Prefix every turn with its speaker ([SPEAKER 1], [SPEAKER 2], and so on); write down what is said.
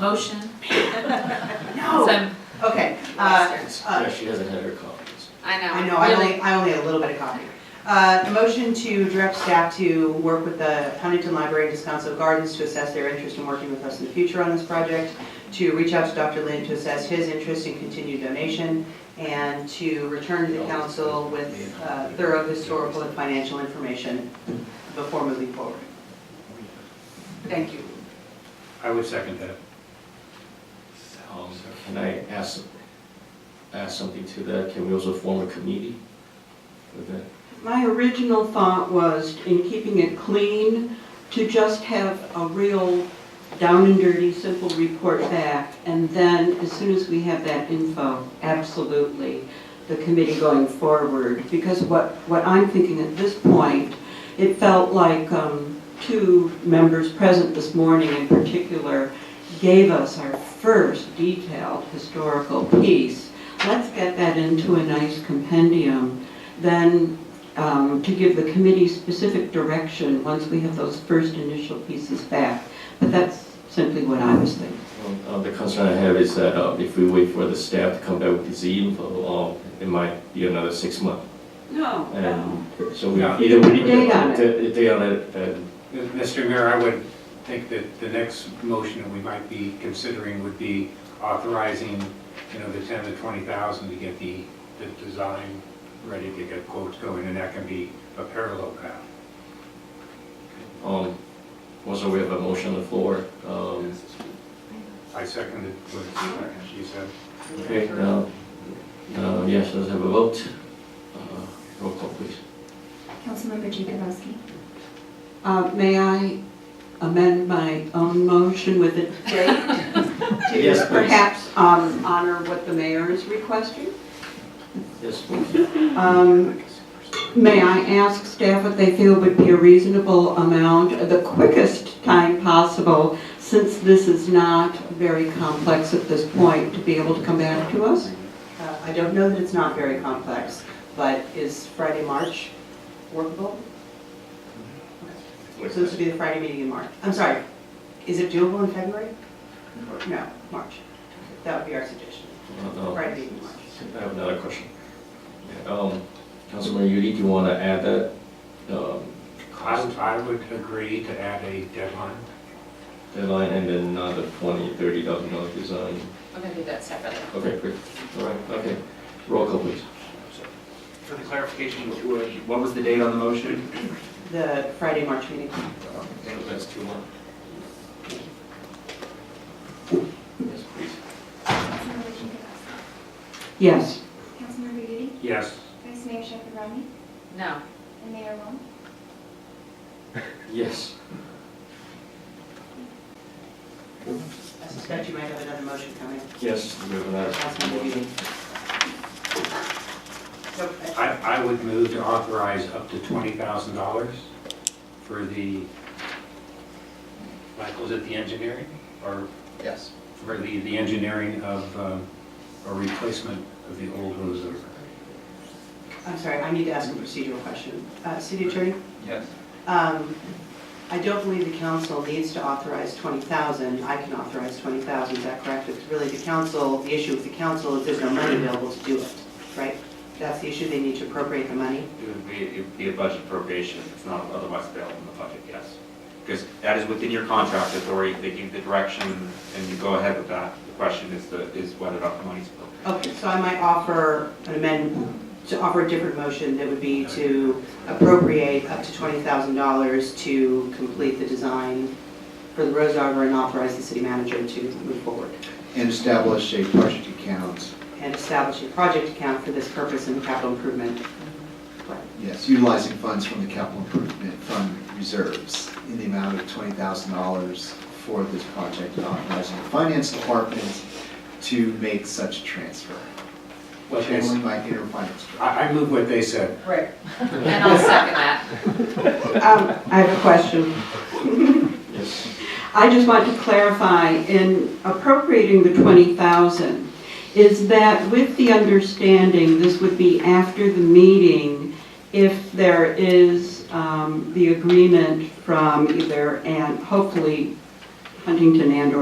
[SPEAKER 1] motion?
[SPEAKER 2] No,
[SPEAKER 1] Some-
[SPEAKER 2] okay, uh, uh,
[SPEAKER 3] Yeah, she doesn't have her copies.
[SPEAKER 1] I know.
[SPEAKER 2] I know, I
[SPEAKER 1] really.
[SPEAKER 2] only, I only had a little bit of copy. Uh, The motion to direct staff to work with the Huntington Library and Descanso Gardens to assess their interest in working with us in the future on this project, to reach out to Dr. Lynn to assess his interest in continued donation, and to return to the council with uh, thorough historical and financial information before moving forward. Thank you.
[SPEAKER 4] I would second that.
[SPEAKER 3] Um, Can I ask, ask something to that? Can we also form a committee with that?
[SPEAKER 5] My original thought was, in keeping it clean, to just have a real down and dirty, simple report back. And then, as soon as we have that info, absolutely, the committee going forward. Because what, what I'm thinking at this point, it felt like um, two members present this morning in particular gave us our first detailed historical piece. Let's get that into a nice compendium. Then um, to give the committee specific direction once we have those first initial pieces back. But that's simply what I was thinking.
[SPEAKER 3] Um, uh, The concern I have is that uh, if we wait for the staff to come back with this info, um, it might be another six months.
[SPEAKER 5] No.
[SPEAKER 3] And so we
[SPEAKER 4] Yeah.
[SPEAKER 3] either we need to.
[SPEAKER 5] Date on it.
[SPEAKER 3] d- Date on it, and
[SPEAKER 4] Mr. Mayor, I would think that the next motion that we might be considering would be authorizing, you know, the 10 to 20,000 to get the, the design ready to get quotes going, and that can be a parallel path.
[SPEAKER 3] um, also we have a motion on the floor. Um,
[SPEAKER 4] I seconded what she said.
[SPEAKER 3] Okay, now, now, yes, let's have a vote. Uh, Roll call, please.
[SPEAKER 6] Councilmember Jacobowski.
[SPEAKER 5] Uh, May I amend my own motion with a date? to
[SPEAKER 3] Yes, please.
[SPEAKER 5] Perhaps um, honor what the mayor is requesting?
[SPEAKER 3] Yes, please.
[SPEAKER 5] Um, May I ask staff what they feel would be a reasonable amount, the quickest time possible, since this is not very complex at this point, to be able to come back to us?
[SPEAKER 2] Uh, I don't know that it's not very complex, but is Friday, March workable? So this would be the Friday meeting in March. I'm sorry, is it doable in February? No, March. That would be our suggestion,
[SPEAKER 3] Uh, uh,
[SPEAKER 2] Friday meeting in March.
[SPEAKER 3] I have another question. Um, Councilman Yudi, do you want to add that? um,
[SPEAKER 4] I,
[SPEAKER 3] cost
[SPEAKER 4] I would agree to add a deadline.
[SPEAKER 3] Deadline and then another twenty, thirty thousand dollar design.
[SPEAKER 1] I'm gonna do that separately.
[SPEAKER 3] Okay, great. All right, okay. Roll call, please.
[SPEAKER 7] For the clarification, wh- what was the date on the motion?
[SPEAKER 2] The Friday, March meeting.
[SPEAKER 3] Uh, That's two more. Yes, please.
[SPEAKER 6] Councilmember Jacobowski.
[SPEAKER 5] Yes.
[SPEAKER 6] Councilmember Udi.
[SPEAKER 4] Yes.
[SPEAKER 6] Vice Mayor Shepherd Romney.
[SPEAKER 1] No,
[SPEAKER 6] And Mayor Wong.
[SPEAKER 3] Yes.
[SPEAKER 2] I suspect you might have another motion coming.
[SPEAKER 3] Uh, Yes, we have another.
[SPEAKER 2] Last Monday meeting. So, uh,
[SPEAKER 4] I, I would move to authorize up to $20,000 for the, Michael's at the engineering, or?
[SPEAKER 8] Yes.
[SPEAKER 4] For the, the engineering of, um, a replacement of the old Rosa.
[SPEAKER 2] I'm sorry, I need to ask a procedural question. Uh, City Attorney?
[SPEAKER 8] Yes.
[SPEAKER 2] Um, I don't believe the council needs to authorize 20,000. I can authorize 20,000, is that correct? It's really the council, the issue with the council is there's no money available to do it, right? That's the issue, they need to appropriate the money.
[SPEAKER 7] It would be, it would be a budget appropriation, if it's not otherwise available in the budget, yes. Because that is within your contract authority, they give the direction, and you go ahead with that. The question is the, is whether or not the money's available.
[SPEAKER 2] Okay, so I might offer an amendment, to offer a different motion that would be to appropriate up to $20,000 to complete the design for the Rose Arbor and authorize the city manager to move forward
[SPEAKER 8] And establish a budget account,
[SPEAKER 2] and establish a project account for this purpose in the capital improvement plan.
[SPEAKER 8] yes, utilizing funds from the capital improvement fund reserves in the amount of twenty thousand dollars for this project, and authorizing the finance department to make such transfer.
[SPEAKER 4] What they,
[SPEAKER 8] Channeling my inner finance director.
[SPEAKER 4] I, I move what they said.
[SPEAKER 2] Right.
[SPEAKER 1] and I'll second that.
[SPEAKER 5] Um, I have a question.
[SPEAKER 3] Yes.
[SPEAKER 5] I just want to clarify, in appropriating the 20,000, is that with the understanding this would be after the meeting if there is um, the agreement from either, and hopefully Huntington and/or